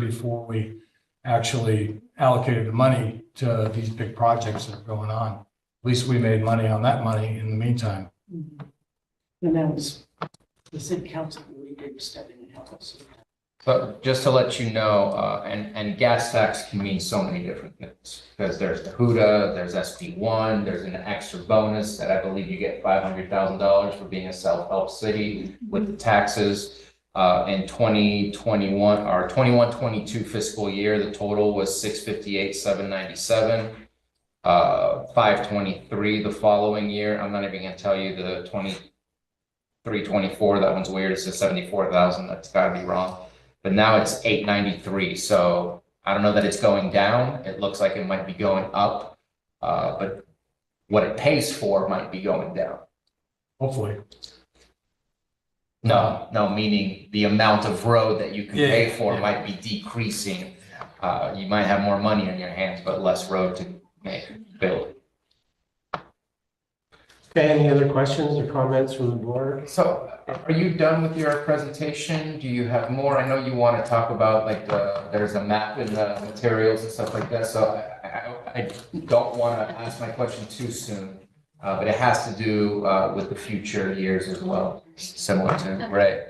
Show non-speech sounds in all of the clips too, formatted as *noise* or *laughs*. before we actually allocated the money to these big projects that are going on. At least we made money on that money in the meantime. Mhm. And that was the city council really did step in and help us. But just to let you know, uh, and, and gas tax can mean so many different things. Because there's the HUDA, there's SB one, there's an extra bonus that I believe you get five hundred thousand dollars for being a self-help city with the taxes. Uh, in twenty twenty-one, or twenty-one, twenty-two fiscal year, the total was six fifty-eight, seven ninety-seven. Uh, five twenty-three the following year. I'm not even gonna tell you the twenty-three, twenty-four, that one's weird. It says seventy-four thousand. That's gotta be wrong but now it's eight ninety-three, so I don't know that it's going down, it looks like it might be going up. Uh, but what it pays for might be going down. Hopefully, No, no, meaning the amount of road that you can Yeah, pay yeah, for yeah. might be decreasing. Uh, you might have more money in your hands, but less road to make, build. Okay, any other questions or comments from the board? So are you done with your presentation? Do you have more? I know you want to talk about like the, there's a map in the materials and stuff like that, so I, I, I don't want to ask my question too soon. Uh, but it has to do, uh, with the future years as well, similar to, right?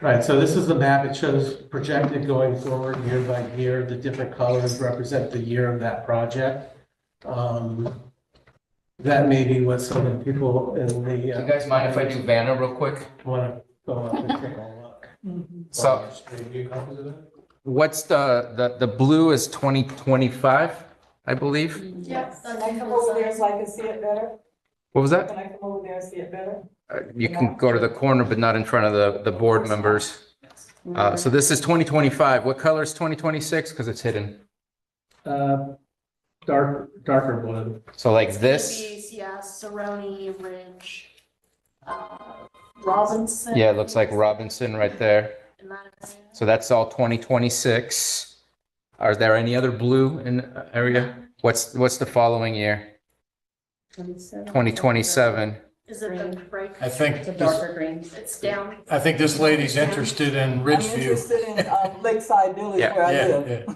Right, so this is the map. It shows projected going forward year by year. The different colors represent the year of that project. Um, That may be what some of the people in the. Do uh, you guys mind if I do Vanna real quick? Want to go up and take a look. So Do you have copies of that? what's the, the, the blue is twenty twenty-five, I believe? Yep. Can I come over there so I can see it better? What was that? Can I come over there and see it better? Uh, You can go to the corner, but not in front of the, the board members. Uh, so this is twenty twenty-five. What color is twenty twenty-six? Because it's hidden. Uh, Dark, darker blue. So like this, Yeah, Saroni, Ridge, uh, Robinson. yeah, it looks like Robinson right there. in that area. So that's all twenty twenty-six. Are there any other blue in the area? What's, what's the following year? Twenty twenty-seven. Is it the break? I think, It's a this- darker green. It's down. I think this lady's interested in I'm Ridgeview. interested in um, Lakeside Village Yeah. where I Yeah, live. yeah.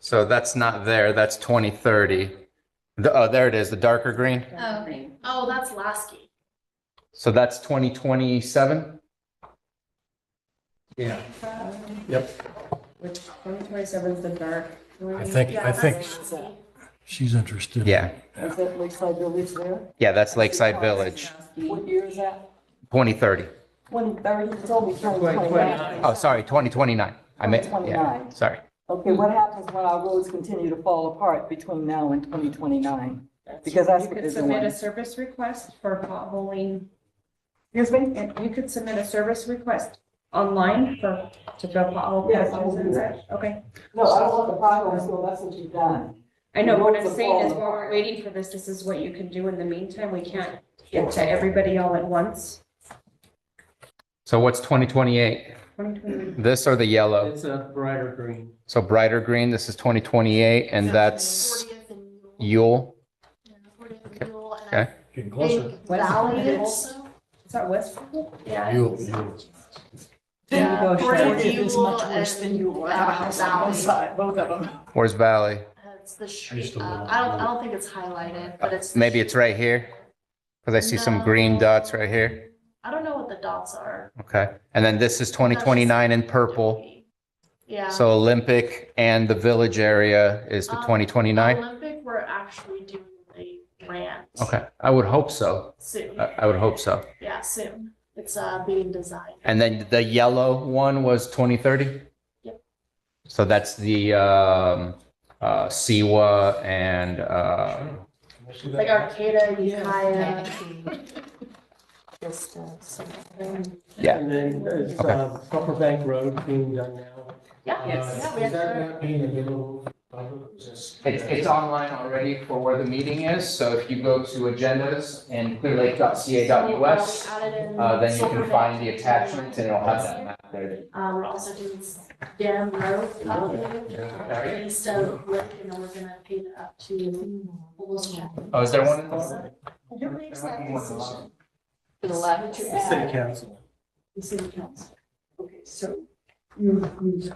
So that's not there. That's twenty thirty. The, oh, there it is, the darker green. Oh, okay. Oh, that's Lasky. So that's twenty twenty-seven? Yeah. Which 2027 is the dark I green. think, Yeah, I think that's Lasky. she's interested. Yeah, Is that Lakeside Village there? yeah, that's Lakeside Village, What year is that? twenty thirty. Twenty thirty, it's only twenty twenty-nine. Oh, sorry, twenty twenty-nine. I meant, yeah, 2029. sorry. Okay, what happens when our roads continue to fall apart between now and twenty twenty-nine? Because that's You what could they're submit a doing. service request for potholing, Excuse me? and you could submit a service request online for, to fill pothole Yes, I will patches and do such, okay? No, I don't want the problem, so that's what you've done. I know what Lots I'm of saying is all- while we're waiting for this, this is what you can do in the meantime, we can't get to everybody all at once. So what's twenty twenty-eight? 2028. This or the yellow? It's a brighter green. So brighter green, this is twenty twenty-eight, and that's 40th and Newell. Yule. Yeah, 40th and Newell, and Okay. Getting I closer. think Valley also. Is that Westfield? Yeah. You, you. There you go, Yeah, Sharon. Fort It is uh, much worse Buell than you were. and, Our house on one Valley. side, both of them. Where's Valley? Uh, It's the used street. to Uh, live I don't, in- I don't think it's highlighted, but it's. the Maybe street. it's right here? Because I see some green No. dots right here. I don't know what the dots are. Okay, and then this is twenty twenty-nine in purple. Yeah. So Olympic and the village area is the Um, twenty twenty-nine? Olympic, we're actually doing a grant. Okay, Uh, I would hope so. Soon, I, I would hope so. yeah, soon. It's, uh, being designed. And then the yellow one was twenty thirty? Yep. So that's the, um, uh, Siwa and, uh, Like Arcata, Ukiah. *laughs* Just, uh, Yeah. And then it's Okay. uh, Upper Bank Road being done now. Yeah, yeah, we have to. being available? It's, It's, it's online already for where the meeting is, so if you go to agendas and clearlake.ca.us, So, uh, we added in uh, then you Silver can find the Lake. attachment and it'll have that map there. Uh, we're also doing Dan Road Oh, out there, east of Lake, and then we're gonna pave it up to almost. Chapman. Oh, is there one in there? Who makes that decision? To the left. City Council. The city council. Okay, so you, you